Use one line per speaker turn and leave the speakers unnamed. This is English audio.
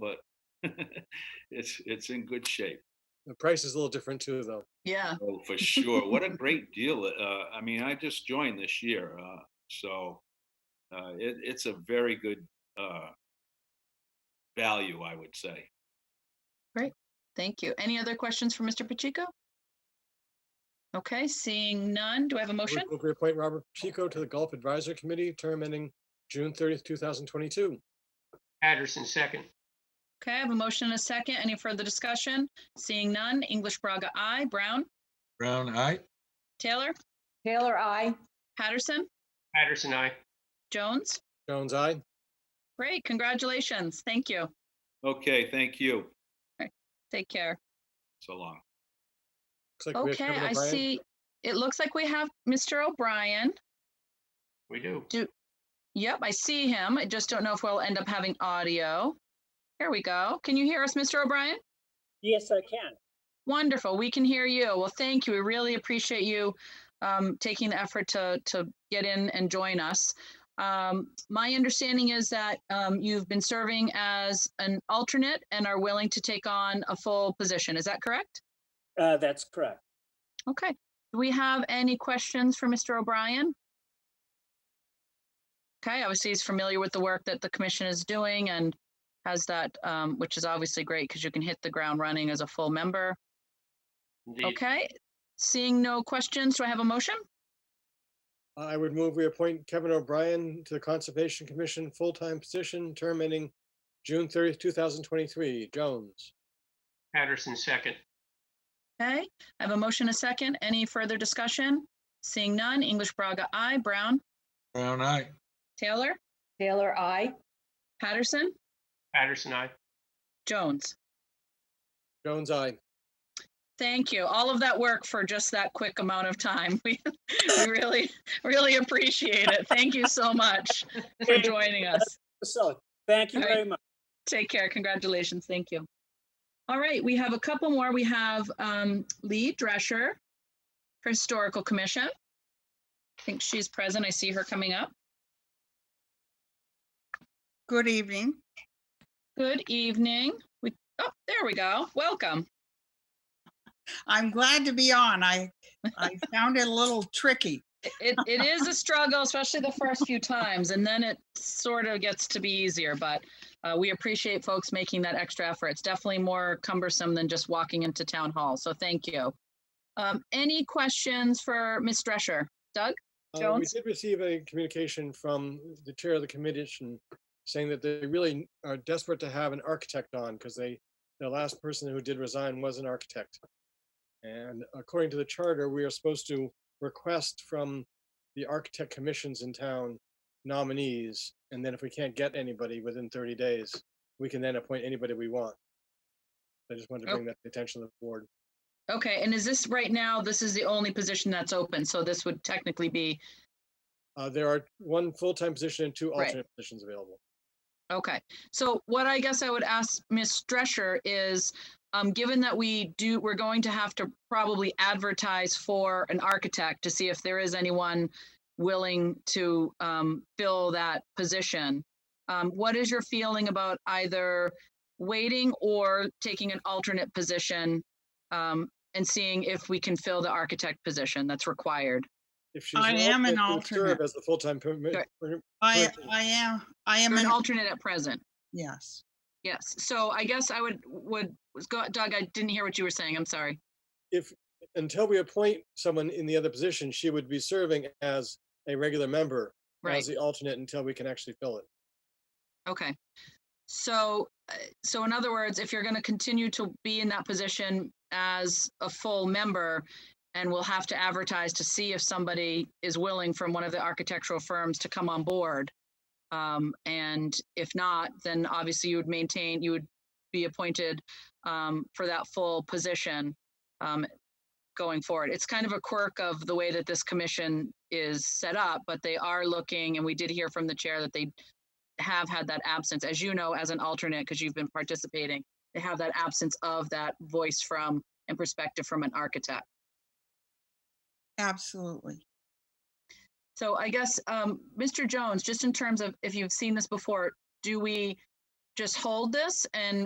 but it's it's in good shape.
The price is a little different too, though.
Yeah.
Oh, for sure. What a great deal. Uh, I mean, I just joined this year, uh, so uh, it, it's a very good uh, value, I would say.
Thank you. Any other questions for Mr. Pacheco? Okay, seeing none, do I have a motion?
Move to appoint Robert Chico to the Golf Advisory Committee, term ending June thirtieth, two thousand twenty-two.
Patterson, second.
Okay, I have a motion and a second. Any further discussion? Seeing none, English Braga, I. Brown,
Brown, aye.
Taylor,
Taylor, I.
Patterson,
Patterson, aye.
Jones.
Jones, aye.
Great, congratulations. Thank you.
Okay, thank you.
Take care.
So long.
Looks like we have
Okay,
Kevin
I
O'Brien.
see, it looks like we have Mr. O'Brien.
We do.
Yep, I see him. I just don't know if we'll end up having audio. Here we go. Can you hear us, Mr. O'Brien?
Yes, I can.
Wonderful. We can hear you. Well, thank you. We really appreciate you um, taking the effort to to get in and join us. Um, my understanding is that um, you've been serving as an alternate and are willing to take on a full position. Is that correct?
Uh, that's correct.
Okay. Do we have any questions for Mr. O'Brien? Okay. Obviously, he's familiar with the work that the commission is doing and has that, um, which is obviously great because you can hit the ground running as a full member.
Indeed.
Okay, seeing no questions, do I have a motion?
I would move we appoint Kevin O'Brien to the Conservation Commission, full-time position, term ending June thirtieth, two thousand twenty-three. Jones,
Patterson, second.
Okay, I have a motion, a second. Any further discussion? Seeing none, English Braga, I. Brown,
Brown, aye.
Taylor,
Taylor, I.
Patterson,
Patterson, aye.
Jones.
Jones, aye.
Thank you. All of that work for just that quick amount of time. We, we really, really appreciate it. Thank you so much for joining us.
So, thank you
All right.
very much.
Take care. Congratulations. Thank you. All right, we have a couple more. We have um, Lee Drescher for Historical Commission. I think she's present. I see her coming up.
Good evening.
Good evening. We, oh, there we go. Welcome.
I'm glad to be on. I, I found it a little tricky.
It, it is a struggle, especially the first few times, and then it sort of gets to be easier. But uh, we appreciate folks making that extra effort. It's definitely more cumbersome than just walking into town hall. So thank you. Um, any questions for Ms. Drescher?
Uh, We
Jones?
did receive a communication from the chair of the commission saying that they really are desperate to have an architect on because they, the last person who did resign was an architect. And according to the charter, we are supposed to request from the architect commissions in town nominees. And then if we can't get anybody within 30 days, we can then appoint anybody we want. I just wanted to
Oh.
bring that to the attention of the board.
Okay, and is this right now, this is the only position that's open, so this would technically be,
Uh, There are one full-time position and two
Right.
alternate positions available.
okay. So what I guess I would ask Ms. Drescher is, um, given that we do, we're going to have to probably advertise for an architect to see if there is anyone willing to, um, fill that position. Um, what is your feeling about either waiting or taking an alternate position, um, and seeing if we can fill the architect position that's required?
If she's
I am an
alternate, she'll serve
alternate.
As the full-time permit,
Right.
per-
I,
Perfect.
I am, I am
You're an
an,
alternate at present.
yes.
Yes, so I guess I would, would, was go- Doug, I didn't hear what you were saying, I'm sorry.
until we appoint someone in the other position, she would be serving as a regular member
Right,
as the alternate until we can actually fill it.
okay. So, uh, so in other words, if you're going to continue to be in that position as a full member, and we'll have to advertise to see if somebody is willing from one of the architectural firms to come on board. Um, and if not, then obviously you would maintain, you would be appointed um, for that full position um, going forward. It's kind of a quirk of the way that this commission is set up, but they are looking, and we did hear from the chair that they have had that absence, as you know, as an alternate, because you've been participating. They have that absence of that voice from and perspective from an architect.
Absolutely.
So I guess, um, Mr. Jones, just in terms of if you've seen this before, do we just hold this and